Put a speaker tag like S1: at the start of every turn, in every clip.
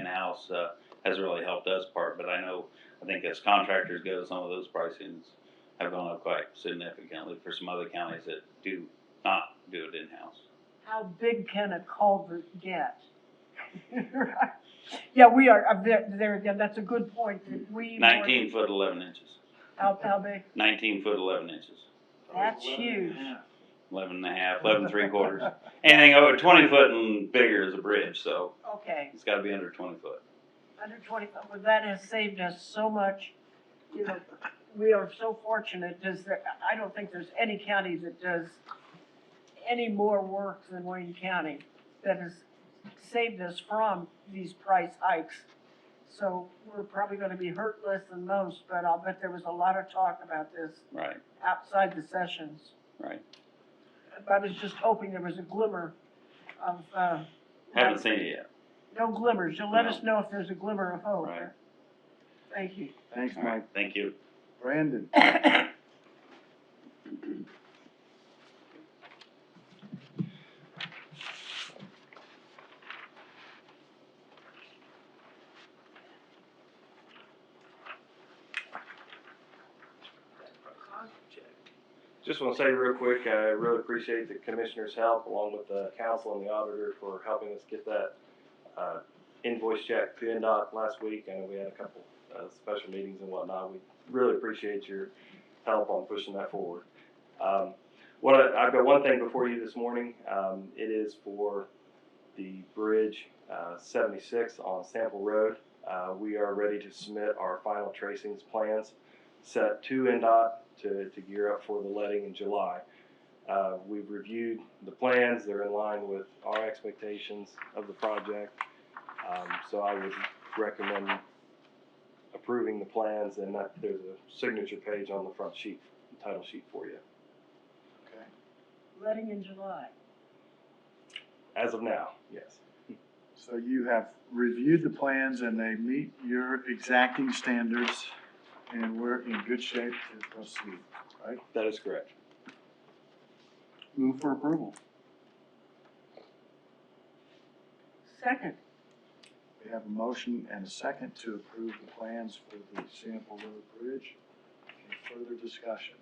S1: in-house, uh, has really helped us part, but I know, I think as contractors go, some of those pricings have gone up quite significantly for some other counties that do not do it in-house.
S2: How big can a culvert get? Yeah, we are, uh, there, there again, that's a good point, that we. were-
S1: Nineteen foot eleven inches,
S2: How, how big?
S1: nineteen foot eleven inches,
S2: That's huge.
S1: eleven and a half, eleven three quarters. Anything over twenty foot and bigger is a bridge, so
S2: Okay,
S1: it's gotta be under twenty foot.
S2: under twenty, well, that has saved us so much, you know, we are so fortunate, does there, I don't think there's any county that does any more work than Wayne County that has saved us from these price hikes. So we're probably gonna be hurt less than most, but I'll bet there was a lot of talk about this
S1: Right,
S2: outside the sessions.
S1: right.
S2: I was just hoping there was a glimmer of, uh.
S1: Haven't seen it yet.
S2: No glimmers. You'll let us know if there's a glimmer of hope.
S1: Right.
S2: Thank you.
S3: Thanks,
S1: All right,
S3: Mike.
S1: thank you.
S3: Brandon,
S4: Just want to say real quick, I really appreciate the commissioner's help along with the council and the auditor for helping us get that uh, invoice check to NDOT last week. I know we had a couple uh, special meetings and whatnot. We really appreciate your help on pushing that forward. Um, What, I- I've got one thing before you this morning. Um, It is for the Bridge uh, 76 on Sample Road. Uh, We are ready to submit our final tracings plans set to NDOT to, to gear up for the letting in July. Uh, we've reviewed the plans, they're in line with our expectations of the project. Um, so I would recommend approving the plans and that, there's a signature page on the front sheet, title sheet for you,
S2: Letting in July.
S4: as of now, yes.
S3: so you have reviewed the plans and they meet your exacting standards and we're in good shape to proceed.
S4: That is correct.
S3: Move for approval.
S2: Second,
S3: We have a motion and a second to approve the plans for the Sample Road Bridge. Any further discussion?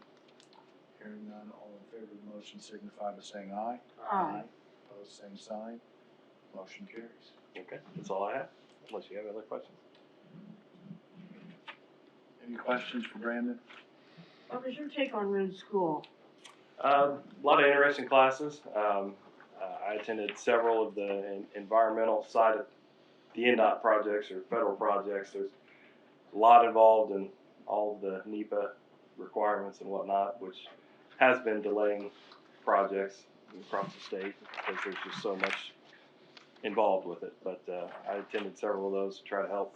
S3: Hearing none, all in favor of the motion signify by saying aye.
S2: aye.
S3: Opposed, same sign. Motion carries.
S4: Okay, that's all I have, unless you have other questions.
S3: Any questions for Brandon?
S2: What was your take on Roone School?
S4: Um, a lot of interesting classes. Um, uh, I attended several of the en- environmental side of the NDOT projects or federal projects. There's a lot involved in all of the NEPA requirements and whatnot, which has been delaying projects across the state because there's just so much involved with it. But uh, I attended several of those to try to help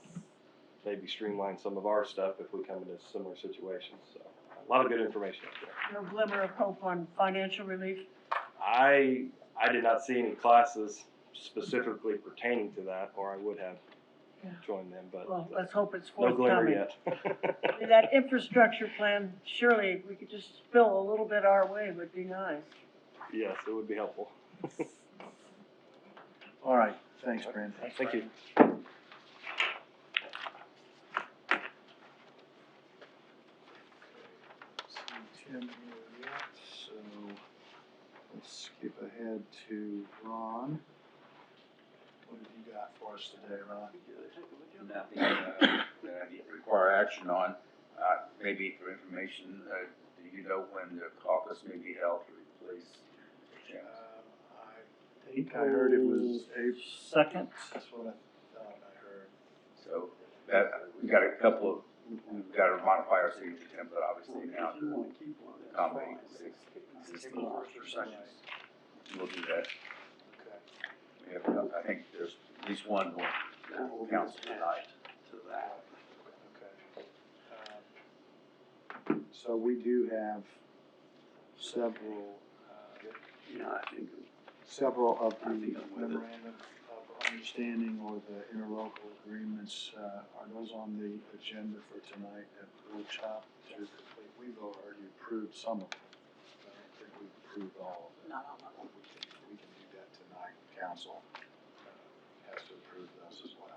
S4: maybe streamline some of our stuff if we come into similar situations. So a lot of good information out there.
S2: No glimmer of hope on financial relief?
S4: I I did not see any classes specifically pertaining to that, or I would have
S2: Yeah.
S4: joined them, but
S2: Well, let's hope it's
S4: no glimmer
S2: forthcoming.
S4: yet.
S2: That infrastructure plan, surely if we could just spill a little bit our way would be nice.
S4: yes, it would be helpful.
S3: All right, thanks, Brandon.
S4: Thank you.
S3: See Tim here yet, so let's skip ahead to Ron. What have you got for us today, Ron?
S5: nothing uh, that I need to require action on. Uh, Maybe for information, uh, do you know when the caucus may be held to replace?
S3: Uh, I think I heard it was April. Second. That's what I thought I heard.
S5: So that, we got a couple of, we've got to modify our city template obviously now to accommodate six existing first sessions. We'll do that.
S3: Okay.
S5: We have, enough. I think there's at least one more council tonight. To that.
S3: Okay. Um, So we do have several, uh,
S5: Yeah, I think.
S3: several of the
S5: I think I'm with it.
S3: memorandum of understanding or the interlocal agreements, uh, are those on the agenda for tonight at workshop? to complete? We've already approved some of them. I don't think we've approved all of them. No, no, no. We can, we can do that tonight. Council uh, has to approve those as well.